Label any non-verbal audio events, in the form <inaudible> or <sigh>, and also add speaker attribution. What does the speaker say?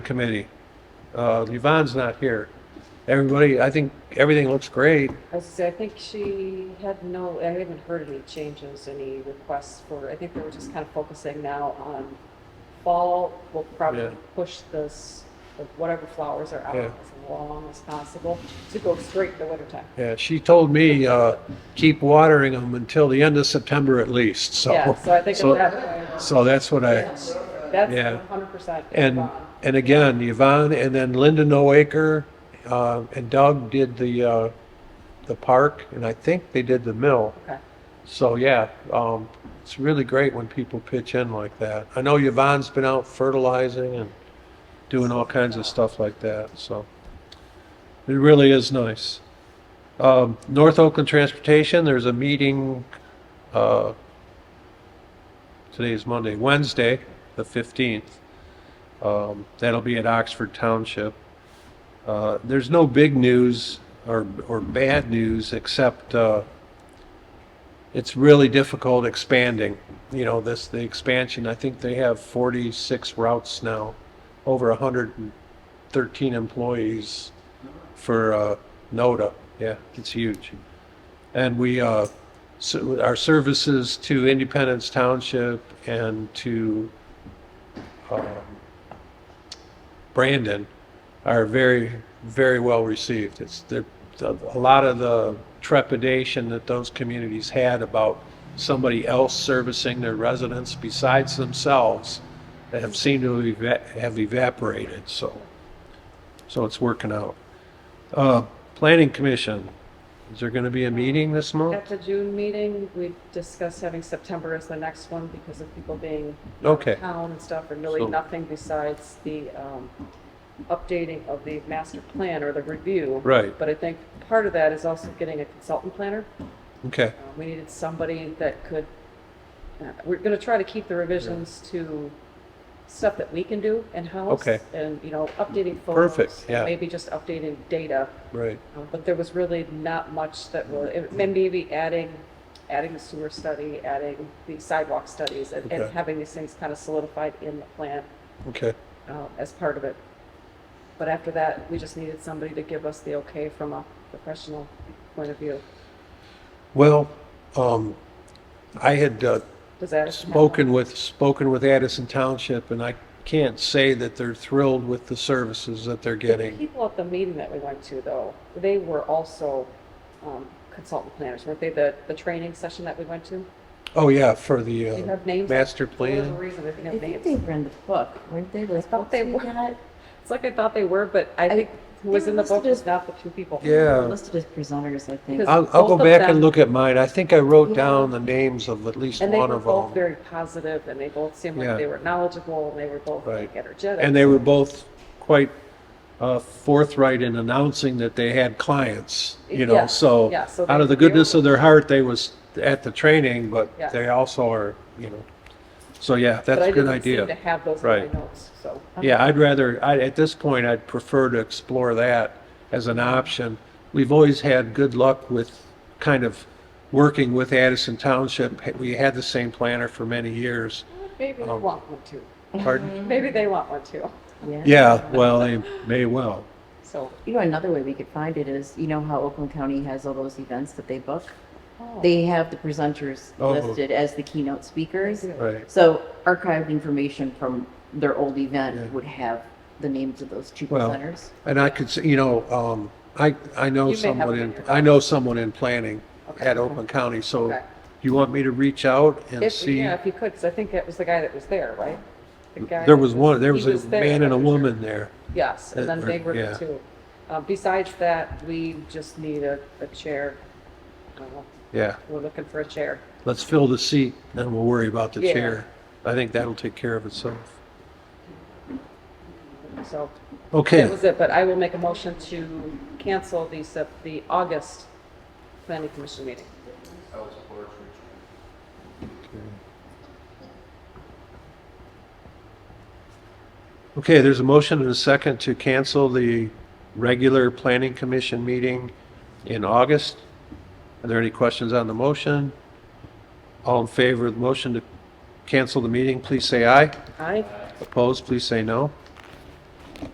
Speaker 1: committee. Uh, Yvonne's not here. Everybody, I think everything looks great.
Speaker 2: I was gonna say, I think she had no, I haven't heard any changes, any requests for, I think they were just kind of focusing now on fall, we'll
Speaker 1: Yeah.
Speaker 2: probably push this, like, whatever flowers are out
Speaker 1: Yeah.
Speaker 2: as long as possible to go straight to wintertime.
Speaker 1: Yeah, she told me, uh, keep watering them until the end of September at least, so.
Speaker 2: Yeah, so I think at
Speaker 1: so-
Speaker 2: that point,
Speaker 1: So that's what I, yeah.
Speaker 2: that's hundred percent.
Speaker 1: and, and again, Yvonne, and then Linda Noaker, uh, and Doug did the, uh, the park, and I think they did the mill.
Speaker 2: Okay,
Speaker 1: So yeah, um, it's really great when people pitch in like that. I know Yvonne's been out fertilizing and doing all kinds of stuff like that. So it really is nice. Um, North Oakland Transportation, there's a meeting. Uh, today is Monday, Wednesday, the 15th. Um, that'll be at Oxford Township. Uh, there's no big news or, or bad news except. Uh, it's really difficult expanding. You know, this, the expansion, I think they have 46 routes now, over 113 employees for uh, NODA. Yeah, it's huge. And we, uh, so our services to Independence Township and to um, Brandon are very, very well received. It's, they're, a lot of the trepidation that those communities had about somebody else servicing their residents besides themselves have seemed to eva- have evaporated, so, so it's working out. Uh, Planning Commission, is there gonna be a meeting this month?
Speaker 2: at the June meeting, we discussed having September as the next one because of people being
Speaker 1: Okay,
Speaker 2: town and stuff, and
Speaker 1: So-
Speaker 2: really nothing besides the um, updating of the master plan or the review.
Speaker 1: Right.
Speaker 2: But I think part of that is also getting a consultant planner.
Speaker 1: okay,
Speaker 2: Uh, We needed somebody that could, uh, we're going to try to keep the revisions to stuff that we can do in-house.
Speaker 1: Okay.
Speaker 2: And, you know, updating photos.
Speaker 1: Perfect,
Speaker 2: and
Speaker 1: yeah.
Speaker 2: Maybe just updating data.
Speaker 1: right,
Speaker 2: Um, But there was really not much that was, it- maybe adding, adding the sewer study, adding the sidewalk studies, and and
Speaker 1: Okay.
Speaker 2: having these things kind of solidified in the plan
Speaker 1: okay,
Speaker 2: uh, as part of it. But after that, we just needed somebody to give us the okay from a professional point of view.
Speaker 1: well, um, I had, uh,
Speaker 2: Does that? happen?
Speaker 1: spoken with, spoken with Addison Township, and I can't say that they're thrilled with the services that they're
Speaker 2: The
Speaker 1: getting.
Speaker 2: people at the meeting that we went to, though, they were also um, consultant planners, weren't they? The, the training session that we went to?
Speaker 1: Oh, yeah, for the,
Speaker 2: Do you
Speaker 1: uh,
Speaker 2: have names?
Speaker 1: master
Speaker 2: For whatever
Speaker 1: plan.
Speaker 2: reason, they
Speaker 3: I
Speaker 2: didn't
Speaker 3: think
Speaker 2: have
Speaker 3: they
Speaker 2: names.
Speaker 3: were in the book, weren't they? Like,
Speaker 2: thought they
Speaker 3: books we
Speaker 2: were.
Speaker 3: got?
Speaker 2: It's like I thought they were, but I
Speaker 3: I-
Speaker 2: think who was
Speaker 3: they
Speaker 2: in the
Speaker 3: must have
Speaker 2: book was
Speaker 3: just-
Speaker 2: not the two people.
Speaker 3: They're
Speaker 1: Yeah,
Speaker 3: Listed as presenters, I think.
Speaker 2: Because-
Speaker 1: I'll, I'll go
Speaker 2: Both of
Speaker 1: back and
Speaker 2: them-
Speaker 1: look at mine. I think I wrote
Speaker 3: Yeah.
Speaker 1: down the names of at least
Speaker 2: And they
Speaker 1: one
Speaker 2: were
Speaker 1: of
Speaker 2: both
Speaker 1: them.
Speaker 2: very positive, and they both seemed
Speaker 1: Yeah.
Speaker 2: like they were knowledgeable, and they were both
Speaker 1: Right.
Speaker 2: like energetic.
Speaker 1: And they were both quite uh, forthright in announcing that they had clients, you know,
Speaker 2: Yeah,
Speaker 1: so
Speaker 2: yeah, so
Speaker 1: out of
Speaker 2: they-
Speaker 1: the goodness
Speaker 2: they were-
Speaker 1: of their heart, they was at the training, but
Speaker 2: Yeah.
Speaker 1: they also are, you know. So, yeah,
Speaker 2: But
Speaker 1: that's
Speaker 2: I
Speaker 1: a good
Speaker 2: didn't seem to
Speaker 1: idea.
Speaker 2: have those in my
Speaker 1: Right.
Speaker 2: notes, so. uh,
Speaker 1: Yeah, I'd rather, I, at this point, I'd prefer to explore that as an option. We've always had good luck with kind of working with Addison Township. We had the same planner for many years.
Speaker 2: Maybe they
Speaker 1: Um,
Speaker 2: want one too. <laughs>
Speaker 1: Pardon?
Speaker 2: Maybe they want one too.
Speaker 1: Yeah, well, they may well.
Speaker 2: So,
Speaker 3: You know, another way we could find it is, you know how Oakland County has all those events that they book?
Speaker 2: oh,
Speaker 3: They have the presenters
Speaker 1: Oh.
Speaker 3: listed as the keynote speakers.
Speaker 2: They do.
Speaker 1: Right,
Speaker 3: So archived information from their old
Speaker 1: Yeah.
Speaker 3: event would have the names of those two
Speaker 1: Well,
Speaker 3: presenters.
Speaker 1: and I could, say, you know, um, I, I know
Speaker 2: You may have
Speaker 1: someone
Speaker 2: it in
Speaker 1: in,
Speaker 2: your-
Speaker 1: I know someone in planning
Speaker 2: Okay.
Speaker 1: at Oakland County, so
Speaker 2: Okay.
Speaker 1: you want me to reach out and
Speaker 2: If,
Speaker 1: see?
Speaker 2: yeah, if you could, 'cause I think it was the guy that was there, right? The guy
Speaker 1: There
Speaker 2: that
Speaker 1: was one, there
Speaker 2: he
Speaker 1: was a
Speaker 2: there,
Speaker 1: man and a
Speaker 2: wasn't there?
Speaker 1: woman there.
Speaker 2: Yes, and
Speaker 1: that
Speaker 2: then
Speaker 1: were-
Speaker 2: they were
Speaker 1: yeah.
Speaker 2: the two. Uh, Besides that, we just need a, a chair. Uh,
Speaker 1: Yeah.
Speaker 2: We're looking for a chair.
Speaker 1: Let's fill the seat, then we'll worry about the
Speaker 2: Yeah.
Speaker 1: chair. I think that'll take care of itself.
Speaker 2: So that
Speaker 1: Okay,
Speaker 2: was it, but I will make a motion to cancel the, Sep- the August planning commission meeting.
Speaker 1: okay, there's a motion and a second to cancel the regular planning commission meeting in August. Are there any questions on the motion? All in favor of the motion to cancel the meeting, please say aye.
Speaker 2: Aye?
Speaker 1: Opposed, please say no.